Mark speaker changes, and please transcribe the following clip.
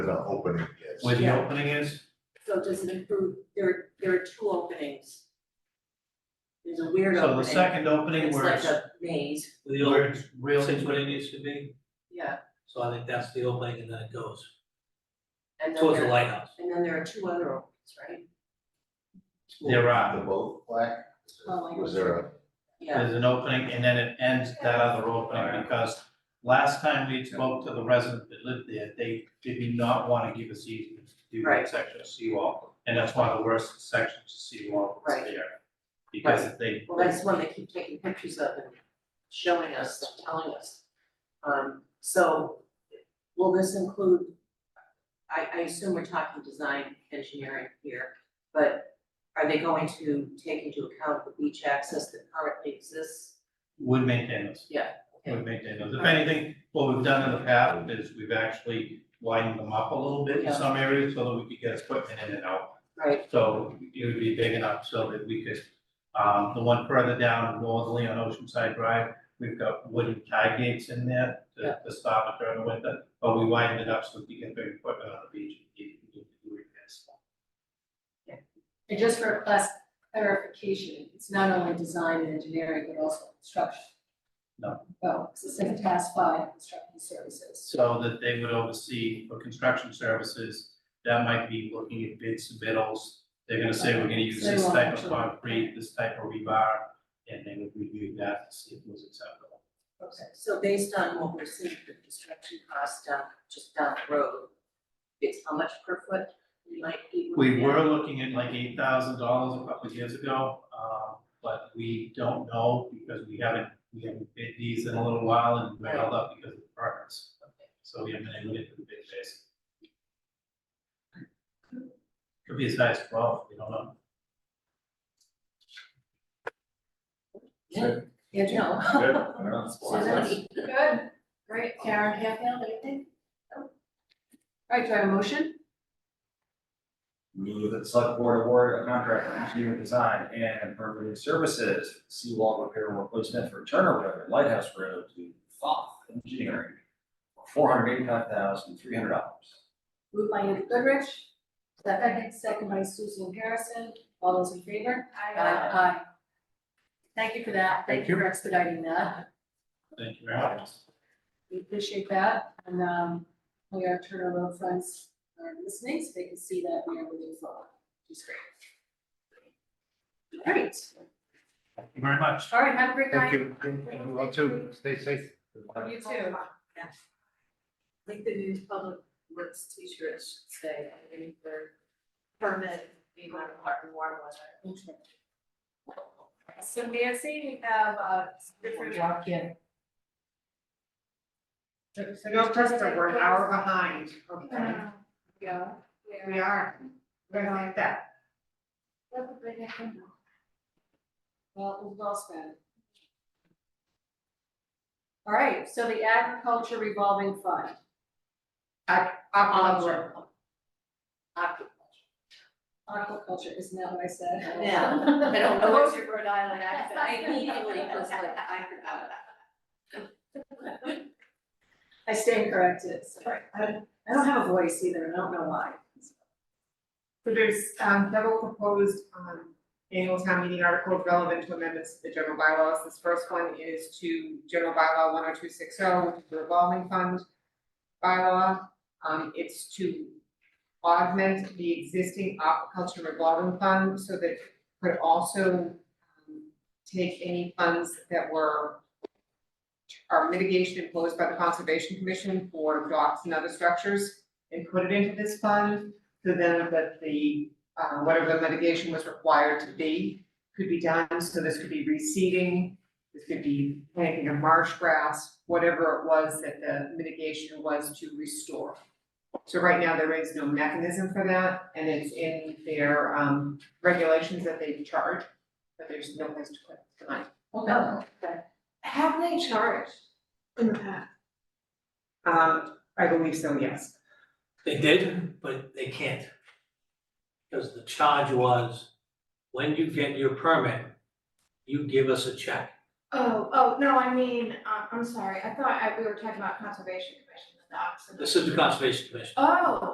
Speaker 1: the opening is.
Speaker 2: Where the
Speaker 3: Yeah.
Speaker 2: opening is?
Speaker 3: So does it include, there, there are two openings. There's a weird
Speaker 2: So the
Speaker 3: opening.
Speaker 2: second opening
Speaker 3: It's
Speaker 2: where
Speaker 3: like
Speaker 2: it's,
Speaker 3: a maze,
Speaker 4: The
Speaker 2: where
Speaker 4: old,
Speaker 2: it's real,
Speaker 4: sits where it needs to be,
Speaker 3: yeah,
Speaker 4: so I think that's the opening and then it goes
Speaker 3: and then
Speaker 4: towards the
Speaker 3: there,
Speaker 4: lighthouse.
Speaker 3: and then there are two other openings, right?
Speaker 2: there
Speaker 1: The
Speaker 2: are,
Speaker 1: boat flag,
Speaker 3: Oh, I
Speaker 1: was there a,
Speaker 3: Yeah,
Speaker 2: there's an opening and then it ends that other opening because last time we spoke to the resident that lived there, they did not wanna give us easement to do
Speaker 3: Right.
Speaker 2: that section of seawall. And that's one of the worst sections of seawall that's
Speaker 3: Right.
Speaker 2: there. Because they,
Speaker 3: well, that's one they keep taking pictures of and showing us, and telling us. Um, so will this include, I, I assume we're talking design engineering here, but are they going to take into account the beach access that currently exists?
Speaker 2: would maintain those.
Speaker 3: Yeah, okay.
Speaker 2: Would maintain those. If anything, what we've done in the past is we've actually widened them up a little bit in
Speaker 3: Yeah.
Speaker 2: some areas so that we could get equipment in and out.
Speaker 3: Right,
Speaker 2: So it would be big enough so that we could, um, the one further down northerly on Oceanside Drive, we've got wooden tie gates in there
Speaker 3: Yeah.
Speaker 2: to, to stop it during the winter, but we widened it up so we can bring equipment on the beach. and keep it moving through it.
Speaker 5: And just for a class clarification, it's not only design and engineering, but also construction.
Speaker 2: No.
Speaker 5: Oh, so it's in task five, construction services.
Speaker 2: So that they would oversee for construction services, that might be looking at bid submittals. They're gonna say, we're gonna use
Speaker 5: They
Speaker 2: this
Speaker 5: won't
Speaker 2: type of
Speaker 5: actually-
Speaker 2: concrete, this type of rebar, and they would review that to see if it was acceptable.
Speaker 3: Okay, so based on what we're seeing for construction costs down, just down the road, it's how much per foot we might be
Speaker 2: We
Speaker 3: looking at?
Speaker 2: were looking at like eight thousand dollars a couple of years ago, um, but we don't know because we haven't, we haven't bid these in a little while and we're held up because of the partners. So we haven't been able to get to the bid phase. Could be as high as twelve, we don't know.
Speaker 5: Yeah, no.
Speaker 1: good, I don't know.
Speaker 5: Susan? Good, great, Karen, Hatfield, anything? All right, do I have a motion?
Speaker 6: Move that the select board award a contract for engineering design and permitting services, seawall repair and replacement for Turner Road and Lighthouse Road to Foth Engineering for four hundred eighty-five thousand, three hundred dollars.
Speaker 5: Moved by Andrew Goodrich, second, second by Susan Harrison, all those in favor?
Speaker 3: Aye.
Speaker 5: Aye. Thank you for that, thank you for expediting that.
Speaker 2: Thank you very much.
Speaker 5: We appreciate that, and um, we are Turner Road friends are listening, so they can see that we are moving forward, which is great. All right,
Speaker 2: Thank you very much.
Speaker 5: all right, have a great night.
Speaker 7: Thank you, and and you all too, stay safe.
Speaker 5: You too.
Speaker 3: Oh, I think the new public works teacher should say, I mean, for permit, being on a part in warm weather.
Speaker 5: So Nancy, we have uh, a different. Walk in.
Speaker 8: No, Krista, we're an hour behind, okay,
Speaker 5: Yeah.
Speaker 8: we are, we're gonna like that.
Speaker 5: Well, it was well spent. All right, so the agriculture revolving fund,
Speaker 8: Aquaculture,
Speaker 5: aquaculture, isn't that what I said?
Speaker 3: Yeah. I don't know what's your
Speaker 5: Rhode Island accent.
Speaker 3: I immediately was like, I forgot that.
Speaker 5: I stand corrected, sorry. I I don't have a voice either, and I don't know why.
Speaker 8: so there's, um, several proposed, um, annual town meeting articles relevant to amendments to the general bylaws. This first one is to general bylaw one oh two six oh, which is the revolving fund bylaw. Um, it's to augment the existing aquaculture revolving fund so that it could also um, take any funds that were are mitigation imposed by the Conservation Commission for docks and other structures and put it into this fund. So then that the, uh, whatever the mitigation was required to be, could be done, so this could be reseeding, this could be planting of marsh grass, whatever it was that the mitigation was to restore. So right now, there is no mechanism for that, and it's in their, um, regulations that they charge, but there's no place to put it tonight.
Speaker 5: Okay.
Speaker 8: Have they charged in the past? Um, I believe so, yes.
Speaker 4: They did, but they can't. Because the charge was, when you get your permit, you give us a check.
Speaker 9: Oh, oh, no, I mean, uh, I'm sorry, I thought I, we were talking about conservation commission, the docs and.
Speaker 4: This is the Conservation Commission.
Speaker 9: Oh,